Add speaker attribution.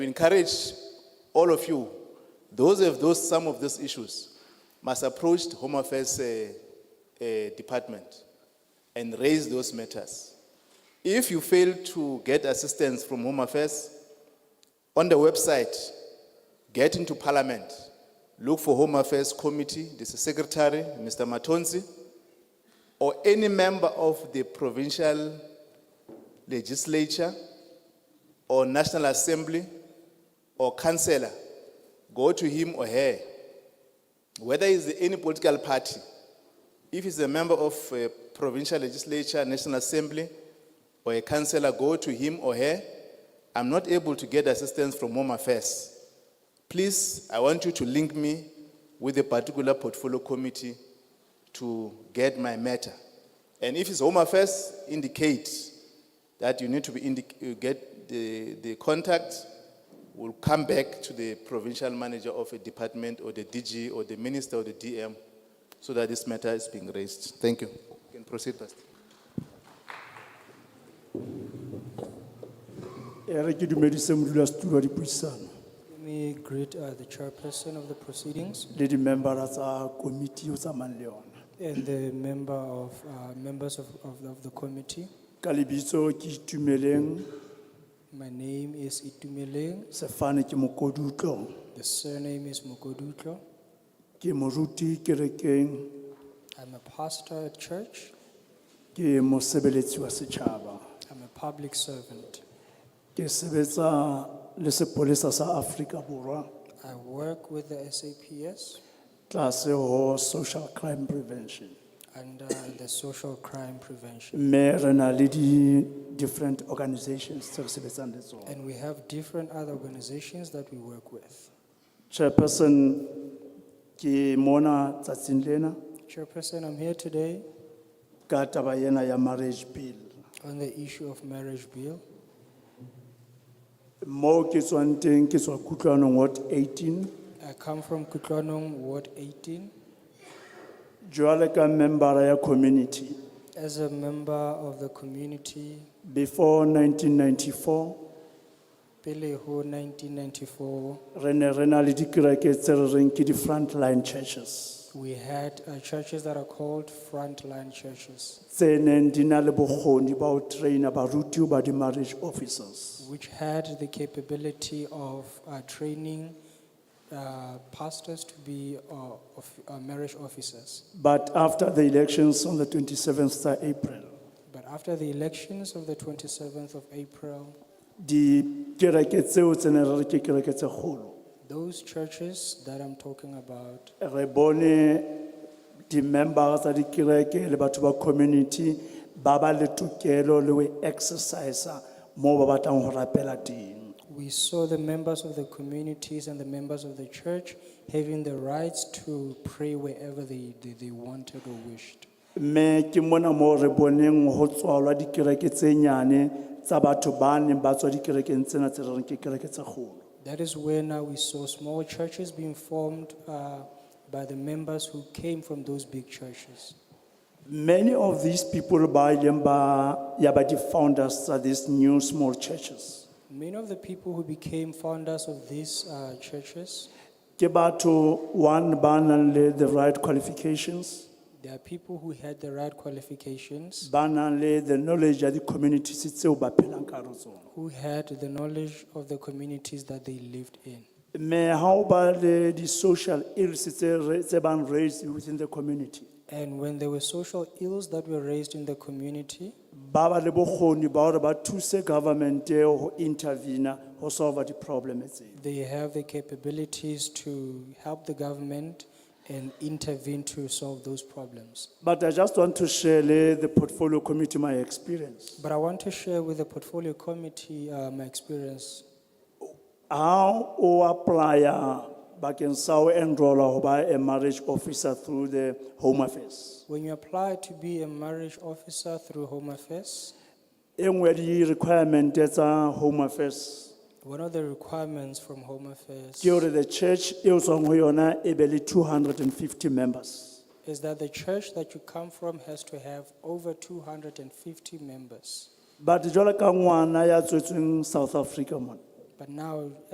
Speaker 1: We encourage all of you, those who have those, some of these issues, must approach the Home Affairs eh, eh, Department and raise those matters. If you fail to get assistance from Home Affairs, on the website, get into Parliament, look for Home Affairs Committee, this is Secretary, Mr. Matonzi, or any member of the provincial legislature or National Assembly or councillor, go to him or her. Whether he's any political party, if he's a member of a provincial legislature, National Assembly, or a councillor, go to him or her. I'm not able to get assistance from Home Affairs. Please, I want you to link me with a particular portfolio committee to get my matter. And if it's Home Affairs, indicate that you need to be indic- you get the, the contact, will come back to the provincial manager of a department or the DG or the minister or the DM so that this matter is being raised. Thank you. You can proceed, Pastor.
Speaker 2: E re ke dumedise modulasetulo wa dipuisano
Speaker 3: Let me greet uh, the chairperson of the proceedings
Speaker 2: le dimembara tsa komiti o tsamayng le yona.
Speaker 3: and the member of, uh, members of, of the- of the committee.
Speaker 2: Ka lebitso ke itumeleng
Speaker 3: My name is Itumeleng,
Speaker 2: sefane ke mokodutlo
Speaker 3: the surname is Mokodutlo.
Speaker 2: ke moruti kerekeng
Speaker 3: I'm a pastor at church,
Speaker 2: ke mosebeletsi wa setjhaba
Speaker 3: I'm a public servant.
Speaker 2: ke sebetsa le sepolesa sa Afrika Borwa
Speaker 3: I work with the SAPS
Speaker 2: tlase ho social crime prevention.
Speaker 3: under uh, the social crime prevention.
Speaker 2: Mme re na le di different organizations tse re sebetsang le tsona.
Speaker 3: And we have different other organizations that we work with.
Speaker 2: Chairperson ke mona tsatsing lena
Speaker 3: Chairperson, I'm here today
Speaker 2: ka taba ena ya marriage bill.
Speaker 3: on the issue of marriage bill.
Speaker 2: Mo ke tswang teng ke tswa kutlwanong Ward 18
Speaker 3: I come from Kutlanong, Ward 18.
Speaker 2: jwale ka member ya community
Speaker 3: As a member of the community,
Speaker 2: before 1994
Speaker 3: pele ho 1994,
Speaker 2: re ne re na le dikereke tse re reng ke di frontline churches
Speaker 3: we had uh, churches that are called frontline churches,
Speaker 2: tse neng di na le bokgoni ba ho traina baruti ba di-marriage officers
Speaker 3: which had the capability of uh, training uh, pastors to be uh, of, uh, marriage officers.
Speaker 2: but after the elections on the 27th of april
Speaker 3: But after the elections of the 27th of April,
Speaker 2: dikereke tseo tse ne re re ke kereke tse kgolo
Speaker 3: those churches that I'm talking about,
Speaker 2: re bone di-member tsa dikereke le batho ba community ba ba le tokelo le ho exercisa moo ba batlang ho rapela teng
Speaker 3: we saw the members of the communities and the members of the church having the rights to pray wherever they, they, they wanted or wished.
Speaker 2: mme ke mona moo re boneng ho tswalwa dikereke tse nyane tsa batho ba neng ba tswa dikerekeng tsena tse re reng ke kereke tse kgolo
Speaker 3: That is where now we saw small churches being formed uh, by the members who came from those big churches.
Speaker 2: many of these people ba ileng ba ya ba di-founders tsa these new small churches
Speaker 3: Many of the people who became founders of these uh, churches,
Speaker 2: ke batho one ba nang le the right qualifications
Speaker 3: they are people who had the right qualifications,
Speaker 2: ba nang le the knowledge ya di-communities tseo ba phelang ka hare ho tsona
Speaker 3: who had the knowledge of the communities that they lived in.
Speaker 2: mme ha o ba le di-social ills tse re- tse bang raised within the community
Speaker 3: And when there were social ills that were raised in the community,
Speaker 2: ba ba le bokgoni ba hore ba thuse government ho intervene ho solve di-problem tseo
Speaker 3: they have the capabilities to help the government and intervene to solve those problems.
Speaker 2: but i just want to share le the portfolio committee my experience
Speaker 3: But I want to share with the portfolio committee uh, my experience.
Speaker 2: how o apply-a bakeng sa ho enrolla ho ba a marriage officer through the home affairs
Speaker 3: When you apply to be a marriage officer through Home Affairs,
Speaker 2: e nngwe ya di-requirement tsa home affairs
Speaker 3: one of the requirements from Home Affairs
Speaker 2: ke hore the church e o tswang ho yona e be le 250 members
Speaker 3: is that the church that you come from has to have over 250 members.
Speaker 2: but jwalo ka ngwana ya tswetsweng south africa mona
Speaker 3: But now,